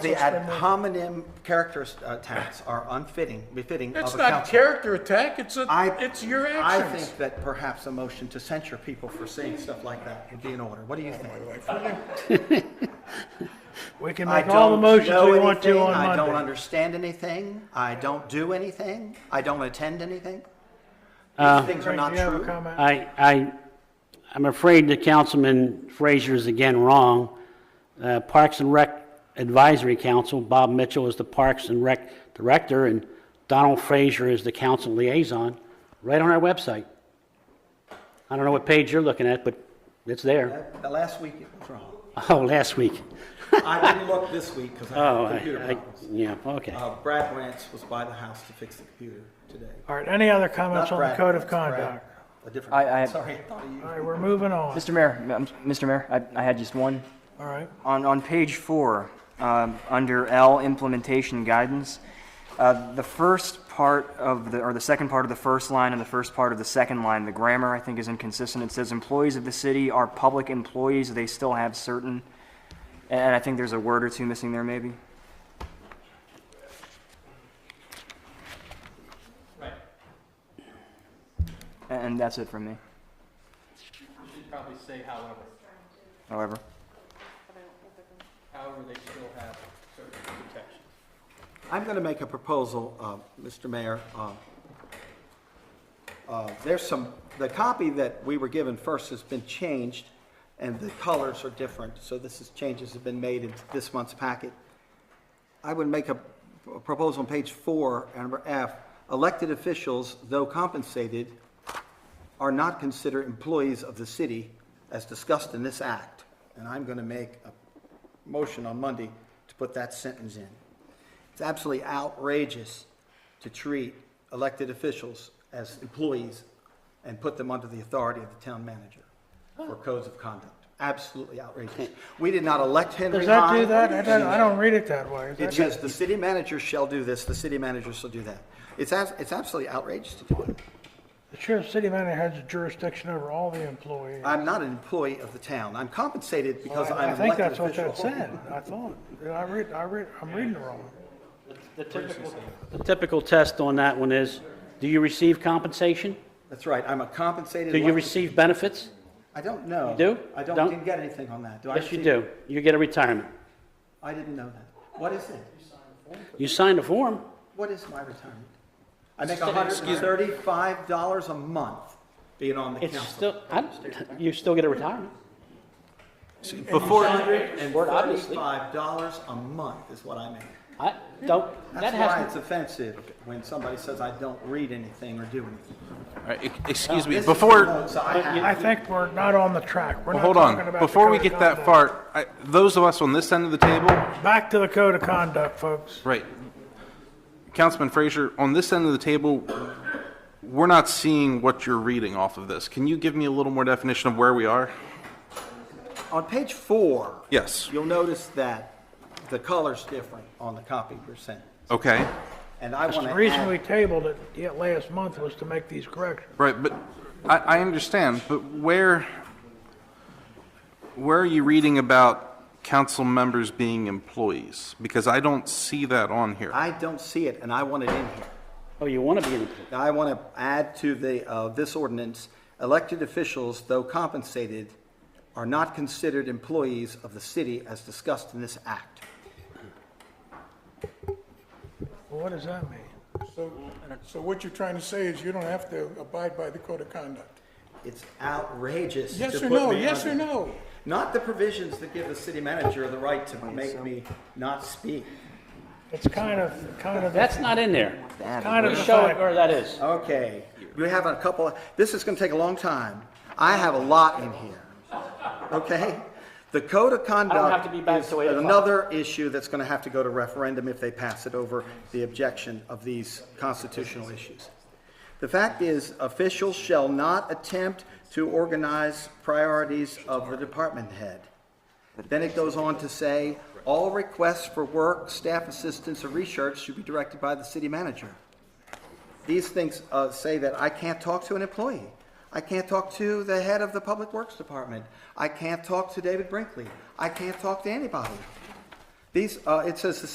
The ad hominem characters uh, attacks are unfitting, befitting of It's a not council. character attack, it's a, I- it's your I actions. think that perhaps a motion to censure people for saying stuff like that would be in order. What do you think? We can I make all the don't motions know we want to anything, on I don't Monday. understand anything. I don't do anything. I don't attend anything. Uh, These things are not Do you have a true. comment? I, I, I'm afraid that Councilman Frazier is again wrong. Uh, Parks and Rec Advisory Council, Bob Mitchell is the Parks and Rec Director, and Donald Frazier is the council liaison, right on our website. I don't know what page you're looking at, but it's there. The last week it was wrong. Oh, last week. I didn't look this week because Oh, I I, had computer I, problems. yeah, okay. Uh, Brad Wentz was by the house to fix the computer today. All right, any other Not comments on the Brad code of Wentz, Brad- conduct? A different, I- I- sorry, I thought of you. All right, we're moving on. Mr. Mayor, um, Mr. Mayor, I, I had just one. All right, On, on page four, um, under L, implementation guidance, uh, the first part of the, or the second part of the first line and the first part of the second line, the grammar, I think, is inconsistent. It says employees of the city are public employees, they still have certain, and I think there's a word or two missing there, maybe. Right. And that's it from me, Should probably say however. however. However, they still have certain protections. I'm going to make a proposal, uh, Mr. Mayor. Uh, uh, There's some, the copy that we were given first has been changed, and the colors are different, so this is, changes have been made in this month's packet. I would make a a proposal on page four, and number F, elected officials, though compensated, are not considered employees of the city as discussed in this act. And I'm going to make a motion on Monday to put that sentence in. It's absolutely outrageous to treat elected officials as employees and put them under the authority of the town manager for codes of conduct. Absolutely outrageous. We did not elect Henry does that do Hahn. that? I don't, I don't read it that way. Is It that- says the city manager shall do this, the city manager shall do that. It's, as- it's absolutely outrageous to do it. The sheriff, city manager has jurisdiction over all the employees. I'm not an employee of the town. I'm compensated because I- I'm I an think elected that's what that official. said, I thought. I read, I read, I'm reading it wrong. The typical- the typical test on that one is, do you receive compensation? That's right, I'm a compensated. Do you elected- receive benefits? I don't know. do? I don't, Don't? didn't get anything on that. Do I? Yes, you receive- do. You get a retirement. I didn't know that. What is it? You signed a form. What is my retirement? I make hundred and thirty-five dollars a month being on the It's council. still, I, you still get a retirement. Before. Hundred and Well, obviously. thirty-five dollars a month is what I make. I don't, that That's why it's has, offensive when somebody says I don't read anything or do anything. All right, ex- excuse me, This is the before, notes I have. I think we're not on the track. We're well, not hold talking about on, the before we code of get that conduct. far, I- those of us on this end of the table, Back to the code of conduct, folks. right, Councilman Frazier, on this end of the table, we're not seeing what you're reading off of this. Can you give me a little more definition of where we are? On page four. Yes. You'll notice that the color's different on the copy percent. Okay, And I want The to reason we add, tabled it yet last month was to make these corrections. right, but I, I understand, but where, where are you reading about council members being employees? Because I don't see that on here. I don't see it, and I want it in here. oh, you want to be an employee. Now, I want to add to the, uh, this ordinance, elected officials, though compensated, are not considered employees of the city as discussed in this act. Well, What does that mean? So, so what you're trying to say is you don't have to abide by the code of conduct? It's outrageous to Yes or put no, me yes or under- no? Not the provisions that give the city manager the right to make me not speak. It's kind of, kind of, That's not in there. kind of the Show it fact. where that is. Okay, we have a couple, this is gonna take a long time. I have a lot in here, okay? The code of conduct. have to be back is till eight o'clock. Another issue that's gonna have to go to referendum if they pass it over the objection of these constitutional issues. The fact is, officials shall not attempt to organize priorities of the department head. Then it goes on to say, all requests for work, staff assistance, or research should be directed by the city manager these things uh, say that I can't talk to an employee. I can't talk to the head of the Public Works Department. I can't talk to David Brinkley. I can't talk to anybody. These, uh, it says the